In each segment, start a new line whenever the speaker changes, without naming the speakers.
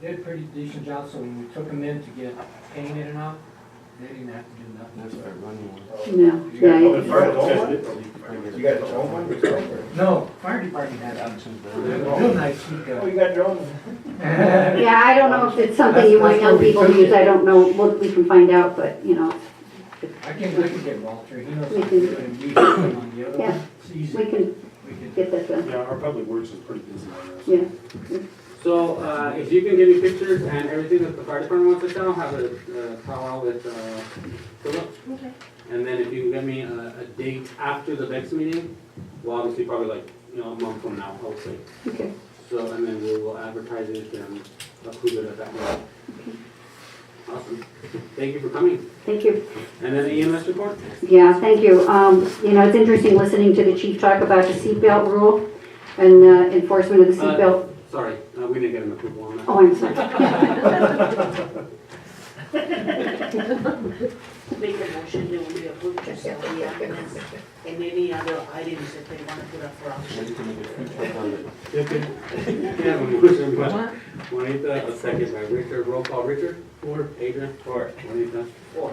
did a pretty decent job, so when we took them in to get painted and all, they didn't have to do nothing.
That's our running one.
No,
You
yeah,
got
you-
another fire department? You got your own one?
No, fire department had them. They're real nice, uh, you
Oh,
go.
you got your own?
yeah, I don't know if it's something you want young people to use, I don't know, We'll- we can find out, but, you know,
I can, I can get Walter, he knows
We
what to do,
can-
and we put him on the other
Yeah.
one. It's easy.
we can
We can-
get that done,
Yeah, our public works is pretty busy on this.
yeah.
So, uh, if you can give me pictures and everything that the fire department wants to sell, have a, uh, powwow with, uh, Philip.
Okay.
And then if you can get me a, a date after the next meeting, well, obviously probably like, you know, a month from now, I would say.
Okay.
So, and then we will advertise it and approve it at that moment. Awesome. Thank you for coming.
Thank you.
And then the EMS report?
Yeah, thank you. Um, You know, it's interesting listening to the chief talk about the seatbelt rule and uh, enforcement of the
Uh,
seatbelt.
Sorry, uh, we didn't get an approval on that.
Oh, I'm sorry.
Make a motion that we approve to sell the ambulance and any other items that they want to put up for auction.
Wait till we get food truck on it.
Okay. Yeah, a motion by Juanita, a second by Richard, roll call, Richard? Four. Adrian? Four. Juanita? Four.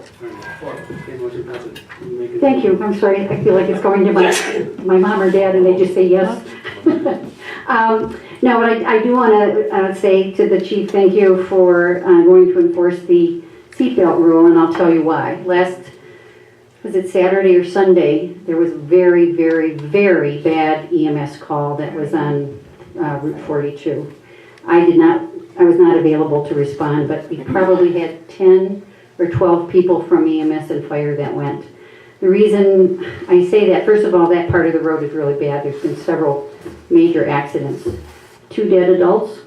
Four. Okay, motion passes. You make it.
Thank you, I'm sorry, I feel like it's going to my, my mom or dad and they just say yes. Um, No, but I, I do want to say to the chief, thank you for uh, going to enforce the seatbelt rule and I'll tell you why. Last, was it Saturday or Sunday, there was a very, very, very bad EMS call that was on uh, Route 42. I did not, I was not available to respond, but we probably had 10 or 12 people from EMS and fire that went. The reason I say that, first of all, that part of the road is really bad. There's been several major accidents. Two dead adults,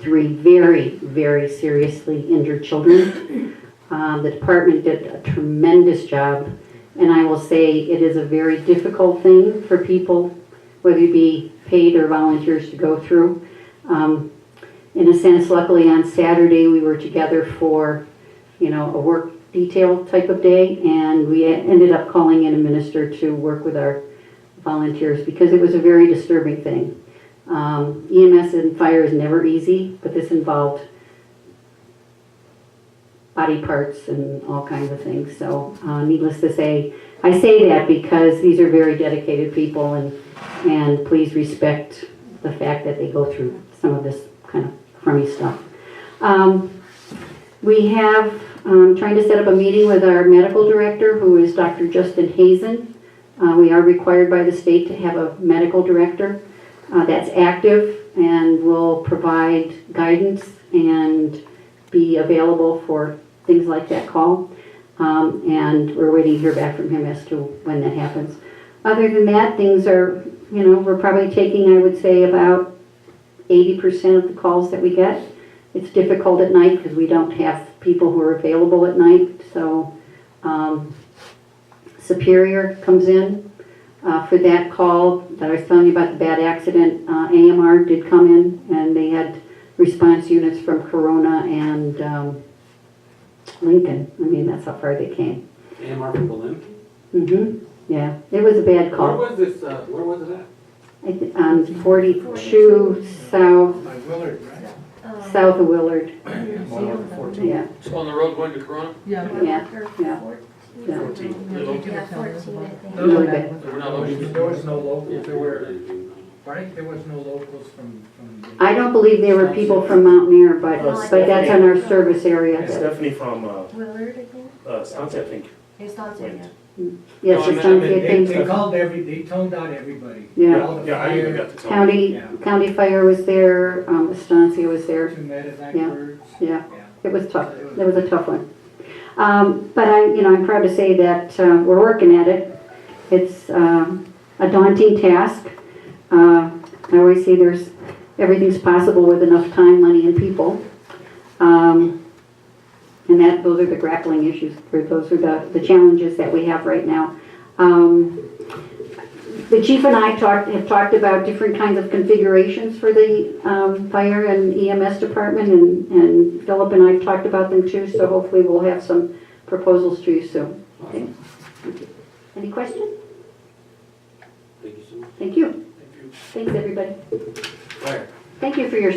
three very, very seriously injured children. Um, The department did a tremendous job, and I will say it is a very difficult thing for people, whether you be paid or volunteers, to go through. Um, In a sense, luckily on Saturday, we were together for you know, a work detail type of day, and we ended up calling in a minister to work with our volunteers because it was a very disturbing thing. Um, EMS and fire is never easy, but this involved body parts and all kinds of things, so uh, needless to say, I say that because these are very dedicated people and, and please respect the fact that they go through some of this kind of crummy stuff. Um, we have, um, trying to set up a meeting with our medical director, who is Dr. Justin Hazen. Uh, we are required by the state to have a medical director, uh, that's active and will provide guidance and be available for things like that call. Um, and we're waiting to hear back from him as to when that happens. Other than that, things are, you know, we're probably taking, I would say, about eighty percent of the calls that we get. It's difficult at night because we don't have people who are available at night, so um, Superior comes in uh, for that call that I was telling you about the bad accident. Uh, AMR did come in and they had response units from Corona and um, Lincoln. I mean, that's how far they came.
AMR from Berlin.
hmm yeah, it was a bad
Where
call.
was this, uh, where was it at?
I thi- On 42 south,
By Willard, right?
Um,
south of Willard,
One over fourteen.
yeah.
On the road going to Corona?
Yeah.
Yeah, yeah. Yeah.
Yeah, fourteen, I think.
Really bad.
We're not looking.
There was no locals, there were,
Where?
right, there was no locals from, from.
I don't believe they were people from Mount Air, but, but that's on our service area.
Stephanie from, uh,
Willard, I think.
uh, Stunts, I think.
It's not
went.
Yes, it's on, I
They,
think,
they called every, they toned out everybody.
yeah.
All the
Yeah, I even
fire-
got to tell.
County, county fire was there, um, Estancia was there,
Two medevac
Yeah.
birds.
yeah.
Yeah.
It was tough, it was a tough one. Um, But I, you know, I'm proud to say that uh, we're working at it. It's um, a daunting task. Uh, I always say there's, everything's possible with enough time, money, and people. Um, And that, those are the grappling issues, or those are the the challenges that we have right now. Um, The chief and I talked, have talked about different kinds of configurations for the um, fire and EMS department, and and Philip and I have talked about them too, so hopefully we'll have some proposals to you soon. Okay. Any questions?
Thank you so much.
Thank you. Thanks, everybody.
Fire.
Thank you for your